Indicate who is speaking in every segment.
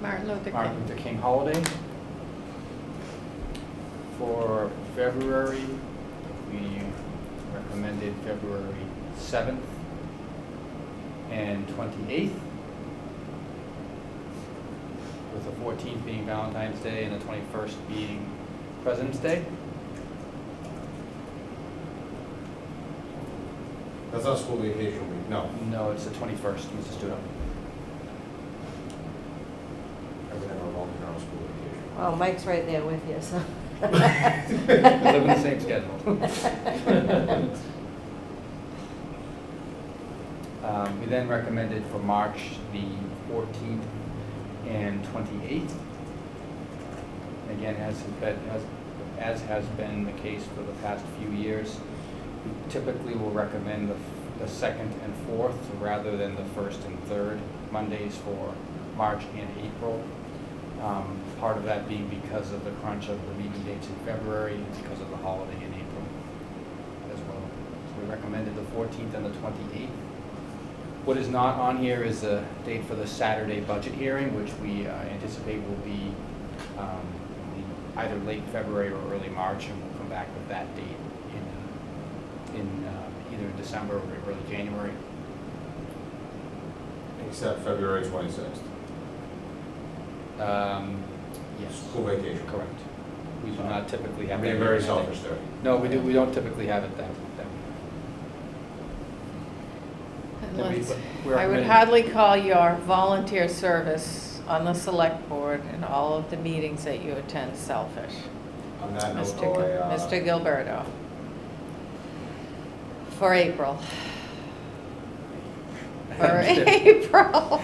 Speaker 1: Martin Luther
Speaker 2: Martin
Speaker 1: King.
Speaker 2: Luther King holiday. For February, we recommended February 7th and 28th, with the 14th being Valentine's Day and the 21st being President's Day.
Speaker 3: That's not school vacation week, no.
Speaker 2: No, it's the 21st, Mrs. Studo.
Speaker 3: I would never volunteer on a school vacation.
Speaker 4: Well, Mike's right there with you, so.
Speaker 2: We live in the same schedule. Um, We then recommended for March the 14th and 28th. Again, as has been- as- as has been the case for the past few years, we typically will recommend the f- the second and fourth rather than the first and third Mondays for March and April. Um, Part of that being because of the crunch of the meeting dates in February and because of the holiday in April as well. So we recommended the 14th and the 28th. What is not on here is the date for the Saturday budget hearing, which we uh, anticipate will be um, the- either late February or early March, and we'll come back with that date in, in uh, either December or early January.
Speaker 3: Except February twenty-sixth,
Speaker 2: Um, Yes,
Speaker 3: school vacation.
Speaker 2: correct. We do not typically
Speaker 3: I'm
Speaker 2: have.
Speaker 3: being
Speaker 2: that
Speaker 3: very
Speaker 2: recommended.
Speaker 3: selfish there.
Speaker 2: No, we do, we don't typically have it that, that.
Speaker 1: Unless-
Speaker 2: We're
Speaker 1: I would
Speaker 2: recommending-
Speaker 1: hardly call your volunteer service on the select board and all of the meetings that you attend selfish.
Speaker 3: On that note,
Speaker 2: Oh,
Speaker 1: Mr. Gil-
Speaker 3: I, uh,
Speaker 1: Mr. Gilberto. For April. For April.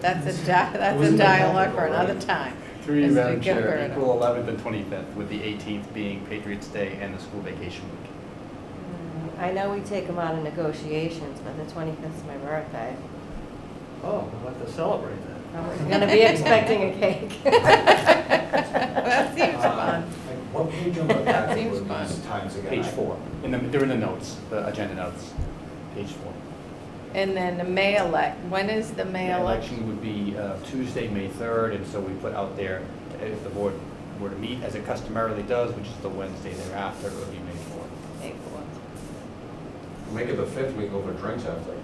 Speaker 1: That's a, di- that's a
Speaker 3: Wasn't that
Speaker 1: dialogue for
Speaker 3: April, right?
Speaker 1: another time.
Speaker 2: Through you,
Speaker 1: Mr.
Speaker 2: Madam Chair,
Speaker 1: Gilberto.
Speaker 2: April 11th and 25th, with the 18th being Patriots' Day and the school vacation week.
Speaker 4: I know we take them out of negotiations, but the 25th is my birthday.
Speaker 5: Oh, we'll have to celebrate that.
Speaker 4: I'm going to be expecting a
Speaker 1: That
Speaker 4: cake.
Speaker 1: seems
Speaker 2: Uh-huh.
Speaker 1: fun.
Speaker 3: uh, Like, what page of the
Speaker 1: That
Speaker 3: packet
Speaker 1: seems
Speaker 3: were
Speaker 1: fun.
Speaker 3: these times again?
Speaker 2: Page
Speaker 3: I-
Speaker 2: four, in the, they're in the notes, the agenda notes, page four.
Speaker 1: And then the May elect, when is the May
Speaker 2: The
Speaker 1: election?
Speaker 2: Election would be uh, Tuesday, May 3rd, and so we put out there, uh, if the board were to meet, as it customarily does, which is the Wednesday thereafter, it would be May 4th.
Speaker 1: April.
Speaker 3: Make it the fifth week over drinks after.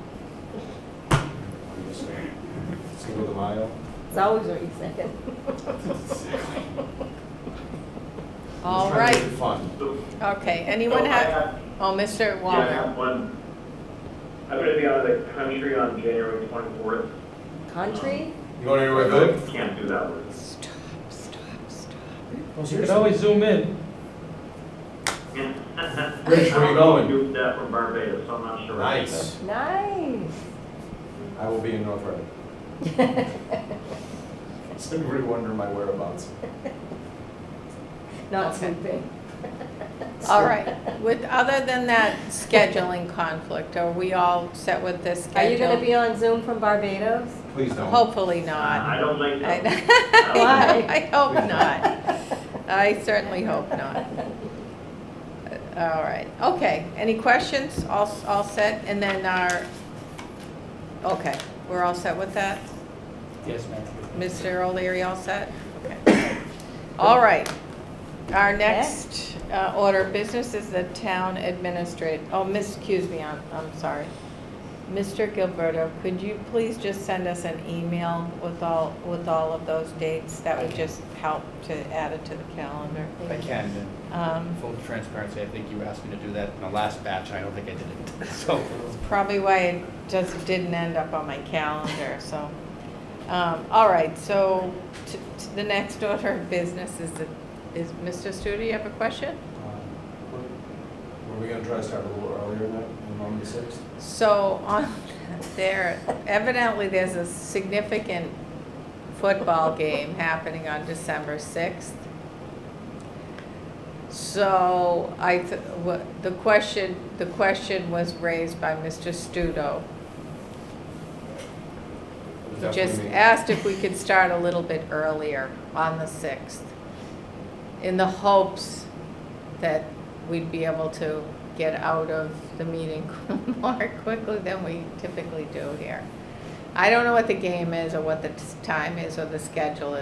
Speaker 3: I'm just saying. Cinco de Mayo.
Speaker 4: It's always what you say.
Speaker 1: All
Speaker 3: Just trying to
Speaker 1: right,
Speaker 3: make it Fun.
Speaker 1: okay, anyone
Speaker 6: So I
Speaker 1: have, oh, Mr.
Speaker 6: Yeah, I have
Speaker 1: Walner,
Speaker 6: one. I'm gonna be out of the country on January twenty-fourth.
Speaker 4: Country?
Speaker 3: You going anywhere good?
Speaker 6: Can't do that one.
Speaker 3: Well,
Speaker 5: You can always zoom in.
Speaker 3: Rich, where you going?
Speaker 6: Do that from Barbados, so I'm not sure.
Speaker 3: Nice.
Speaker 4: Nice.
Speaker 3: I will be in North Reading. Does anybody wonder my whereabouts?
Speaker 4: Not
Speaker 1: Okay.
Speaker 4: sleeping.
Speaker 1: all right, with, other than that scheduling conflict, are we all set with this schedule?
Speaker 4: Are you going to be on Zoom from Barbados?
Speaker 3: Please don't.
Speaker 1: Hopefully not.
Speaker 6: I don't like
Speaker 1: I
Speaker 6: that.
Speaker 4: Why?
Speaker 1: I hope not, I certainly hope not. All right, okay, any questions, all, all set, and then our, okay, we're all set with that?
Speaker 2: Yes, ma'am.
Speaker 1: Mr. O'Leary, all set? Okay. All right. Our next uh, order of business is the town administrator, oh, miss, excuse me, I'm, I'm sorry. Mr. Gilberto, could you please just send us an email with all, with all of those dates? That would just help to add it to the calendar.
Speaker 2: If I can, then,
Speaker 1: Um,
Speaker 2: full transparency, I think you asked me to do that in the last batch, and I don't think I did it, so.
Speaker 1: Probably why it just didn't end up on my calendar, so. Um, all right, so t- t- the next order of business is, the- is, Mr. Studo, you have a question?
Speaker 3: Um, Were we gonna try to start a little earlier than that, than on the sixth?
Speaker 1: So on there, evidently there's a significant football game happening on December sixth. So I, th- wha- the question, the question was raised by Mr. Studo. He just asked if we could start a little bit earlier on the 6th, in the hopes that we'd be able to get out of the meeting more quickly than we typically do here. I don't know what the game is or what the t- time is or the schedule is.